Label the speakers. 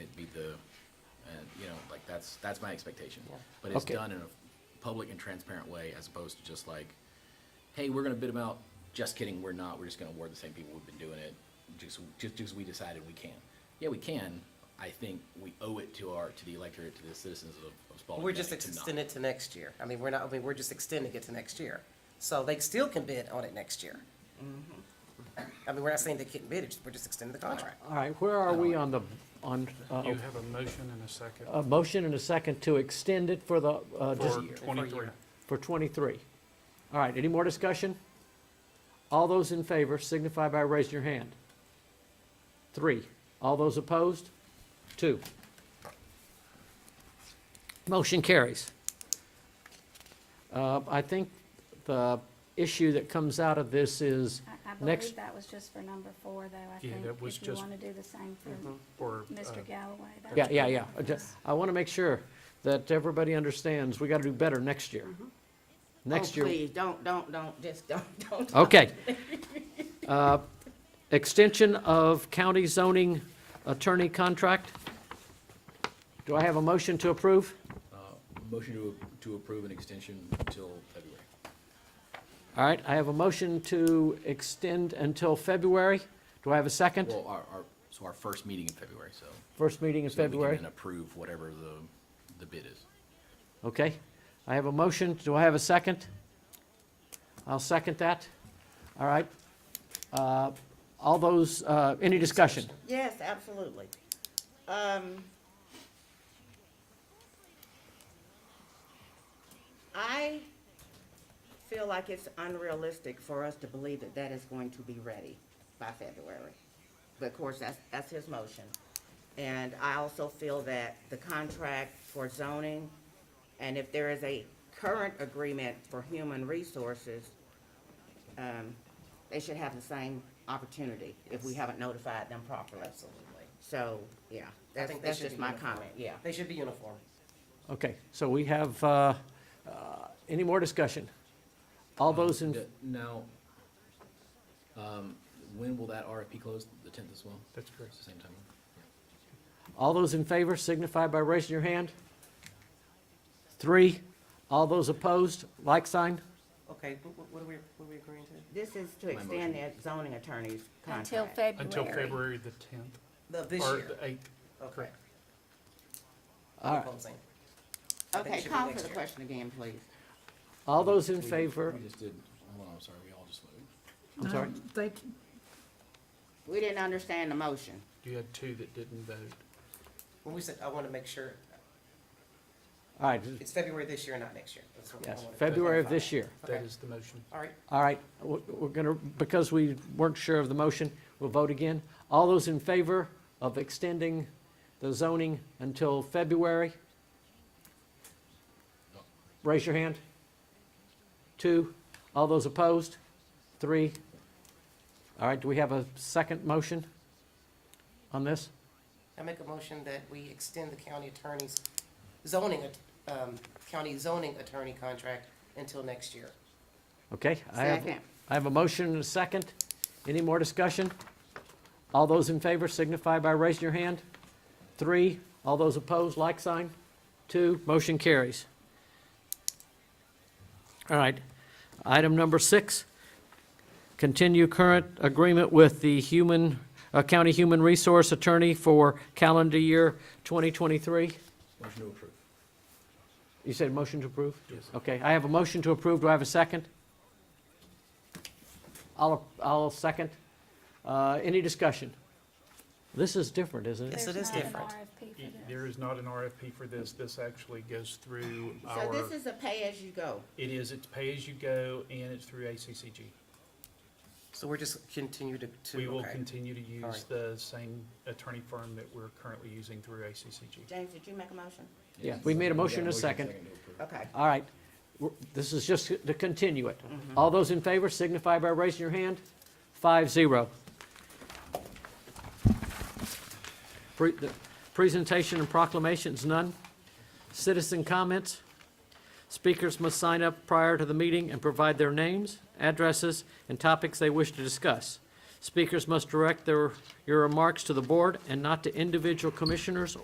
Speaker 1: That's, that's my expectation. But it's
Speaker 2: Okay.
Speaker 1: done in a public and transparent way as opposed to just like, hey, we're gonna bid them out. Just kidding, we're not. We're just gonna award the same people who've been doing it, just, just, just we decided we can. Yeah, we can. I think we owe it to our, to the electorate, to the citizens of, of Spalding.
Speaker 3: We're just
Speaker 1: County to not.
Speaker 3: extending it to next year. I mean, we're not, I mean, we're just extending it to next year. So they still can bid on it next year. I mean, we're not saying they can't bid, it's- we're just extending the contract.
Speaker 2: All right, where are we on the, on, uh,
Speaker 4: You have a motion and a second
Speaker 3: uh,
Speaker 2: a motion and a second to extend it for the, uh, dis-
Speaker 4: for twenty-three.
Speaker 2: for 23? All right, any more discussion? All those in favor signify by raising your hand. Three. All those opposed? Two. Motion carries. Uh, I think the issue that comes out of this is,
Speaker 5: I- I
Speaker 2: Next-
Speaker 5: believe that was just for number four, though, I think,
Speaker 4: that was
Speaker 5: if you
Speaker 4: just-
Speaker 5: want to do the same for
Speaker 4: For, uh,
Speaker 5: Mr. Galloway. that
Speaker 2: yeah,
Speaker 5: was-
Speaker 2: yeah, yeah. I ju- I want to make sure that everybody understands, we got to do better next year. Next year.
Speaker 6: Mm-hmm. Oh, please, don't, don't, don't, just don't, don't.
Speaker 2: Okay. Uh, Extension of county zoning attorney contract. Do I have a motion to approve?
Speaker 1: Uh, Motion to, to approve an extension until February.
Speaker 2: All right, I have a motion to extend until February. Do I have a second?
Speaker 1: Well, our, our, so our first meeting in February, so.
Speaker 2: First meeting in
Speaker 1: so that we can
Speaker 2: February.
Speaker 1: then approve whatever the, the bid is.
Speaker 2: Okay. I have a motion. Do I have a second? I'll second that. All right. Uh, All those, uh, any discussion?
Speaker 6: Yes, absolutely. Um, I feel like it's unrealistic for us to believe that that is going to be ready by February. But of course, that's, that's his motion. And I also feel that the contract for zoning, and if there is a current agreement for human resources, um, they should have the same opportunity if we haven't notified them properly.
Speaker 3: Absolutely.
Speaker 6: So, yeah, that's,
Speaker 3: think they
Speaker 6: that's
Speaker 3: should
Speaker 6: just
Speaker 3: be
Speaker 6: my
Speaker 3: uniform.
Speaker 6: comment, yeah.
Speaker 3: They should be uniform.
Speaker 2: Okay, so we have, uh, uh, any more discussion? All those in,
Speaker 1: Yeah, Now, um, when will that RFP close? The tenth as well?
Speaker 4: That's correct.
Speaker 1: It's the same time?
Speaker 2: all those in favor signify by raising your hand. Three, all those opposed, like sign.
Speaker 3: Okay, what, what are we, what are we agreeing to?
Speaker 6: This is to
Speaker 1: My
Speaker 6: extend the zoning attorney's
Speaker 5: Until
Speaker 6: contract.
Speaker 5: February.
Speaker 4: Until February the tenth
Speaker 3: The, this
Speaker 4: or
Speaker 3: year.
Speaker 4: the eighth. Correct.
Speaker 2: All right,
Speaker 3: Proposing. I think it
Speaker 6: Okay,
Speaker 3: should be
Speaker 6: call
Speaker 3: next
Speaker 6: for the
Speaker 3: year.
Speaker 6: question again, please.
Speaker 2: all those in favor,
Speaker 1: We just did, hold on, I'm sorry, we all just voted.
Speaker 2: I'm sorry,
Speaker 6: We didn't understand the motion.
Speaker 4: You had two that didn't vote.
Speaker 3: Well, we said, I want to make sure,
Speaker 2: all right,
Speaker 3: it's February this year, not next year. That's what I
Speaker 2: yes,
Speaker 3: wanted to
Speaker 2: February of
Speaker 3: clarify.
Speaker 2: this year.
Speaker 4: That
Speaker 3: Okay.
Speaker 4: is the motion.
Speaker 3: All right,
Speaker 2: All right, we're we're gonna, because we weren't sure of the motion, we'll vote again. All those in favor of extending the zoning until February? Raise your hand. Two. All those opposed? Three. All right, do we have a second motion on this?
Speaker 3: I make a motion that we extend the county attorney's zoning, at- um, county zoning attorney contract until next year.
Speaker 2: Okay, I have,
Speaker 6: Second.
Speaker 2: I have a motion and a second. Any more discussion? All those in favor signify by raising your hand. Three, all those opposed, like sign. Two, motion carries. All right, item number six, continue current agreement with the human, uh, county human resource attorney for calendar year 2023.
Speaker 1: Motion to approve.
Speaker 2: You said motion to approve?
Speaker 4: Yes.
Speaker 2: Okay, I have a motion to approve. Do I have a second? I'll, I'll second. Uh, Any discussion? This is different, isn't it?
Speaker 3: Yes, it is different.
Speaker 5: There's not an RFP
Speaker 4: There is not an RFP
Speaker 5: for this.
Speaker 4: for this. This actually goes through
Speaker 6: So
Speaker 4: our,
Speaker 6: this is a pay-as-you-go.
Speaker 4: it is, it's pay-as-you-go and it's through ACCG.
Speaker 3: So we're just continue to, to.
Speaker 4: We will
Speaker 3: okay.
Speaker 4: continue to
Speaker 3: All
Speaker 4: use
Speaker 3: right.
Speaker 4: the same attorney firm that we're currently using through ACCG.
Speaker 6: James, did you make a motion?
Speaker 2: Yeah, we
Speaker 1: Oh,
Speaker 2: made a motion and a second.
Speaker 1: to approve.
Speaker 6: Okay.
Speaker 2: All right, We're- this is just to continue it. All those in favor signify by raising your hand. Five, zero. Pre- the Presentation and proclamations, none. Citizen comments. Speakers must sign up prior to the meeting and provide their names, addresses, and topics they wish to discuss. Speakers must direct their, your remarks to the board and not to individual commissioners